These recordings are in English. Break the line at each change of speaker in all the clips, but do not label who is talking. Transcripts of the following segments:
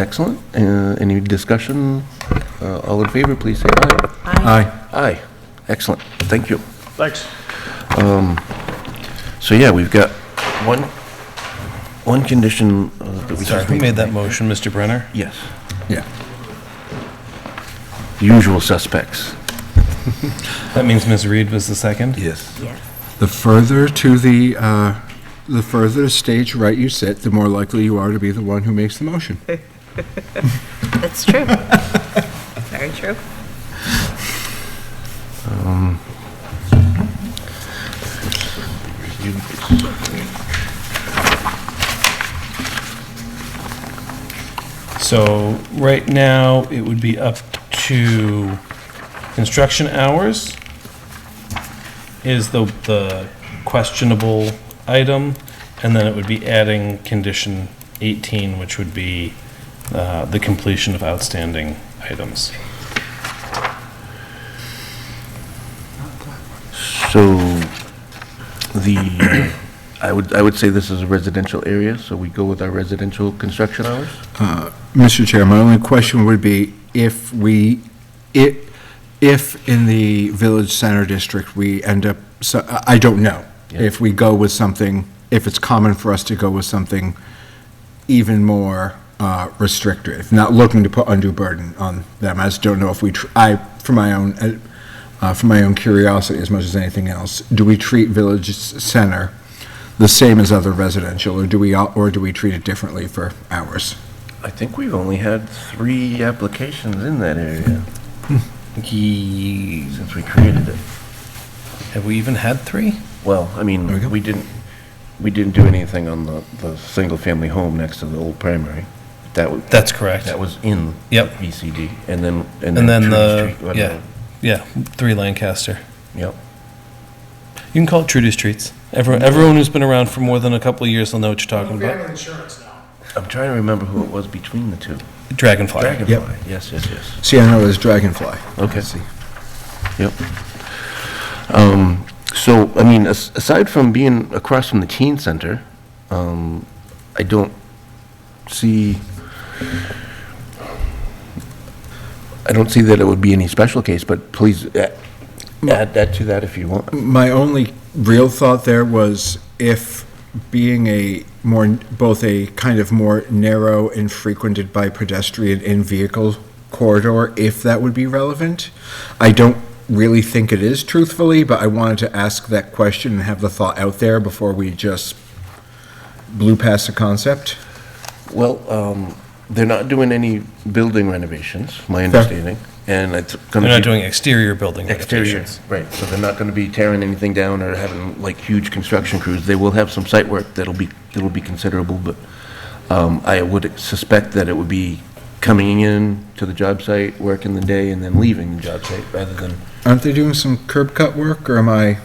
Excellent. Uh, Any discussion? Uh, All in favor, please say aye.
Aye.
Aye. Excellent. Thank you. Um,
Thanks.
So yeah, we've got one, one condition uh, that we
Sorry,
just
who
made.
made that motion, Mr. Brenner?
Yes,
Yeah.
the usual suspects.
That means Ms. Reed was the second?
Yes.
Yes.
The further to the, uh, the further stage right you sit, the more likely you are to be the one who makes the motion.
That's true. Very true.
So right now, it would be up to construction hours is the, the questionable item, and then it would be adding condition 18, which would be uh, the completion of outstanding items.
So the, I would, I would say this is a residential area, so we go with our residential construction hours?
Mr. Chair, my only question would be if we, if, if in the Village Center District, we end up, so, I I don't know.
Yeah.
If we go with something, if it's common for us to go with something even more uh, restrictive, not looking to put undue burden on them. I just don't know if we, tr- I, for my own, uh, uh, for my own curiosity as much as anything else, do we treat Village s- Center the same as other residential, or do we, all- or do we treat it differently for ours?
I think we've only had three applications in that area. Since we created it.
Have we even had three?
Well, I
There we go.
mean, we didn't, we didn't do anything on the, the single-family home next to the old primary. That was,
That's correct.
that was in
Yep.
VCD, and then, and then
And then
Trudy
the,
Street.
yeah, yeah, three Lancaster.
Yep.
You can call it Trudy's Treats. Everyone, everyone who's been around for more than a couple of years will know what you're talking about.
I'm trying to remember who it was between the two.
Dragonfly.
Dragonfly, yes, yes, yes.
See, I know it was Dragonfly.
Okay.
See.
Yep. Um, So, I mean, as- aside from being across from the teen center, um, I don't see, I don't see that it would be any special case, but please a- add that to that if you want.
My only real thought there was if being a more, both a kind of more narrow and frequented by pedestrian and vehicle corridor, if that would be relevant. I don't really think it is truthfully, but I wanted to ask that question and have the thought out there before we just blew past the concept.
Well, um, they're not doing any building renovations, my understanding, and it's going to be...
They're not doing exterior building
Exterior,
renovations.
right, so they're not gonna be tearing anything down or having like huge construction crews. They will have some site work that'll be, that'll be considerable, but um, I would suspect that it would be coming in to the job site, working the day, and then leaving the job site, rather than,
Aren't they doing some curb cut work, or am I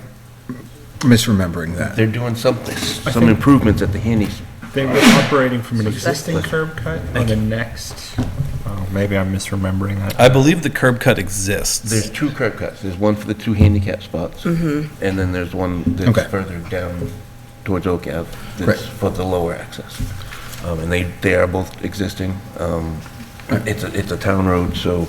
misremembering that?
they're doing something, some improvements at the handy, s-
They were operating from an existing curb cut on the next, oh, maybe I'm misremembering that.
I believe the curb cut exists.
there's two curb cuts. There's one for the two handicap spots, and then there's one
Okay.
that's further down towards Oak Ave
Right.
that's for the lower access. Um, And they, they are both existing. Um, It's, a- it's a town road, so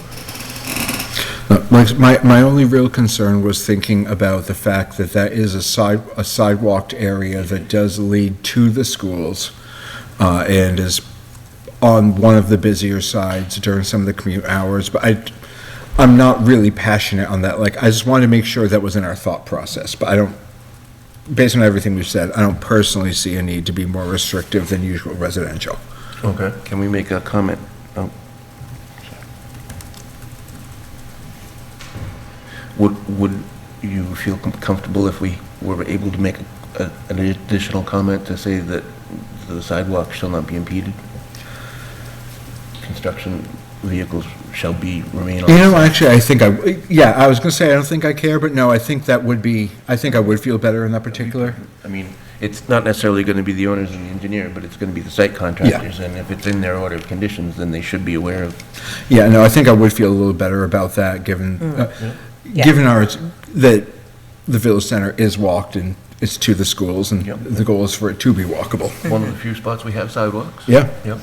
Uh, Like, my, my only real concern was thinking about the fact that that is a side, a sidewalked area that does lead to the schools, uh, and is on one of the busier sides during some of the commute hours, but I, I'm not really passionate on that, like, I just wanted to make sure that was in our thought process, but I don't, based on everything we've said, I don't personally see a need to be more restrictive than usual residential.
Okay, can we make a comment? Oh. Would, would you feel com- comfortable if we were able to make a- an additional comment to say that the sidewalk shall not be impeded? Construction vehicles shall be, remain on.
You know, actually, I think I, yeah, I was gonna say, I don't think I care, but no, I think that would be, I think I would feel better in that particular.
I mean, it's not necessarily going to be the owners and the engineer, but it's going to be the site contractors. And if it's in their order of conditions, then they should be aware of
Yeah, no, I think I would feel a little better about that, given, uh,
Yeah.
given our, that the Village Center is walked and it's to the schools, and
Yep.
the goal is for it to be walkable.
one of the few spots we have sidewalks.
Yeah,
Yep.